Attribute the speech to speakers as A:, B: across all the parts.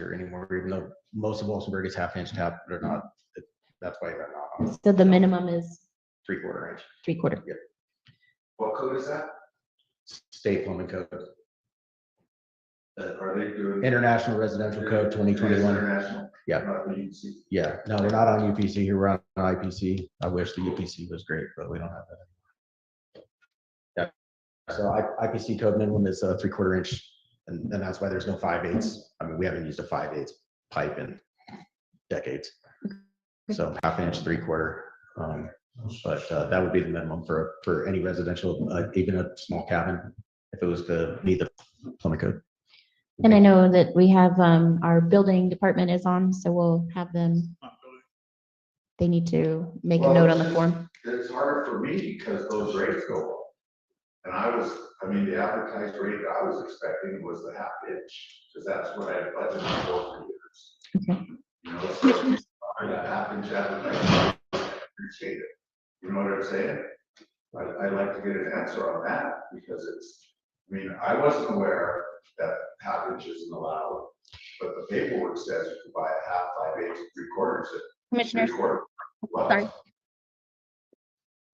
A: faster anymore, even though most of Walsenburg is half inch tap, but not, that's why they're not on
B: So the minimum is
A: three quarter inch
B: three quarter.
C: What code is that?
A: state plumbing code,
C: Uh, Are they doing?
A: international residential code twenty twenty-one.
C: International.
A: Yeah.
C: Not the UC.
A: Yeah, no, we're not on UPC here, we're on IPC. I wish the UPC was great, but we don't have that. Yeah, so I, IPC code minimum is a three quarter inch, and, and that's why there's no five eighths. I mean, we haven't used a five eighths pipe in decades. So half inch, three quarter, um, but, uh, that would be the minimum for, for any residential, uh, even a small cabin, if it was to meet the plumbing code.
B: And I know that we have, um, our building department is on, so we'll have them. They need to make a
C: Well,
B: note on the
C: it's-
B: form.
C: It's harder for me because those rates go up. And I was, I mean, the advertised rate that I was expecting was the half inch, because that's what I had budgeted for for years.
B: Okay.
C: You know, so, I mean, that half inch advertised, rate, I appreciate it. You know what I'm saying? I, I'd like to get an answer on that, because it's, I mean, I wasn't aware that half inch isn't allowed, but the paperwork says you can buy a half, five eighths, three quarters, three
D: Commissioners,
C: quarter. Well,
D: Sorry.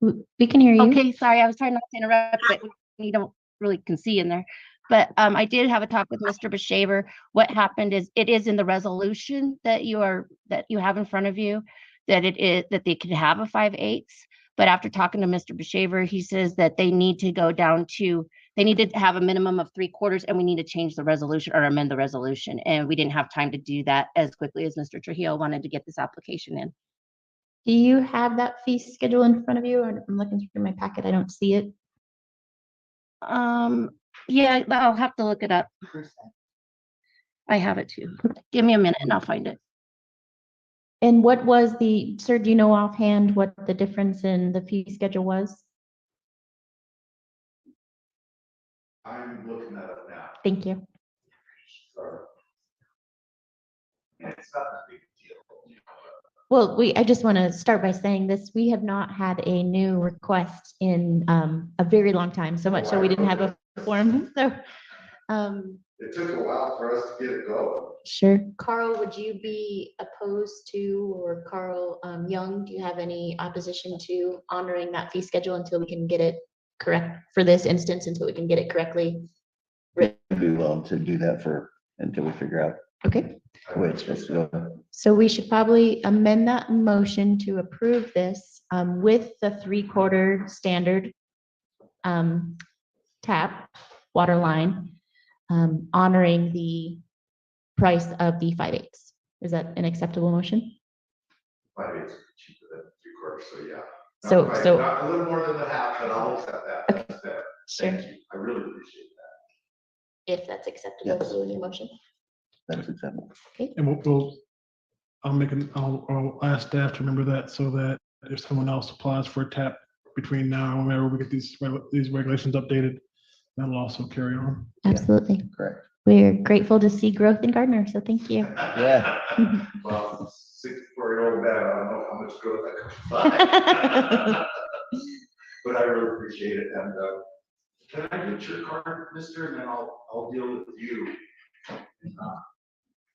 B: W- We can hear you.
D: okay, sorry, I was trying not to interrupt, but you don't really can see in there. But um, I did have a talk with Mr. Beshaver. What happened is it is in the resolution that you are, that you have in front of you, that it is, that they could have a five eighths. But after talking to Mr. Beshaver, he says that they need to go down to, they need to have a minimum of three quarters and we need to change the resolution or amend the resolution. And we didn't have time to do that as quickly as Mr. Trujillo wanted to get this application in.
B: Do you have that fee schedule in front of you? Or I'm looking through my packet. I don't see it.
D: Um, yeah, I'll have to look it up. I have it too. Give me a minute and I'll find it.
B: And what was the, sir, do you know offhand what the difference in the fee schedule was?
C: I'm looking that up now.
B: Thank you.
C: Sure. And it's not a big deal. you know, but
B: Well, we, I just want to start by saying this, we have not had a new request in um, a very long time, so much so we didn't have a form, so. um,
C: It took a while for us to get it going.
B: Sure. Carl, would you be opposed to, or Carl um, Young, do you have any opposition to honoring that fee schedule until we can get it correct for this instance, until we can get it correctly?
E: be willing to do that for, until we figure out
B: Okay.
E: which it's supposed to go.
B: So we should probably amend that motion to approve this um, with the three-quarter standard um, tap, water line, um, honoring the price of the five eighths. Is that an acceptable motion?
C: Five eighths is cheaper than three quarters, so yeah. Not
B: So,
C: quite-
B: so,
C: not A little more than the half, but I'll accept that. That's fair.
B: sure,
C: Thank you. I really appreciate that.
B: if that's acceptable
E: Yes.
B: to your motion.
E: That's acceptable.
F: And we'll, we'll, I'll make an, I'll, I'll ask staff to remember that so that if someone else applies for a tap between now and whenever we get these, reg- these regulations updated, that'll also carry on.
B: Absolutely.
E: Correct.
B: We're grateful to see growth in Gardner, so thank you.
C: Yeah. Well, sixty-four-year-old man, I don't know how much growth I could find. But I really appreciate it, and, uh, can I get your card, mister, and then I'll, I'll deal with you. in, uh,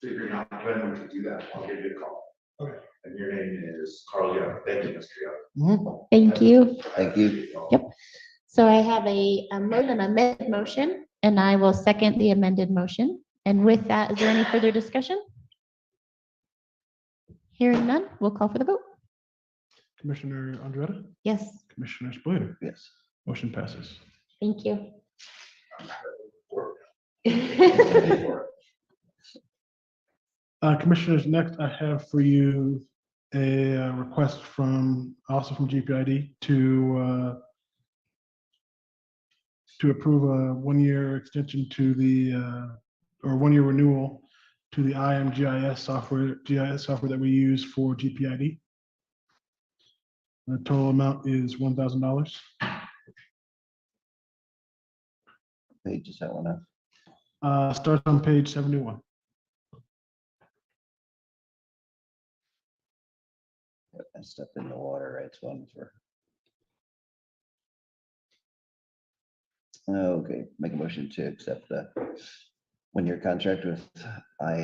C: Figuring out when we can do that, I'll give you a call.
F: Okay.
C: And your name is Carl Young, thank you, Mr. Young.
B: Thank you.
E: Thank you.
B: Yep. So I have a, a mo- an amended motion, and I will second the amended motion. And with that, is there any further discussion? Hearing none, we'll call for the vote.
F: Commissioner Andretta,
B: Yes,
F: Commissioner Spillier,
E: Yes.
F: motion passes.
B: thank you.
F: Uh, Commissioners, next I have for you a uh, request from, also from GPID to uh, to approve a one-year extension to the, uh, or one-year renewal to the IMGIS software, GIS software that we use for GPID. The total amount is $1,000.
E: Page is that one up?
F: Uh, Starts on page 71.
E: Yep, That stuff in the water, right? It's one for. Okay, make a motion to accept the one-year contract with I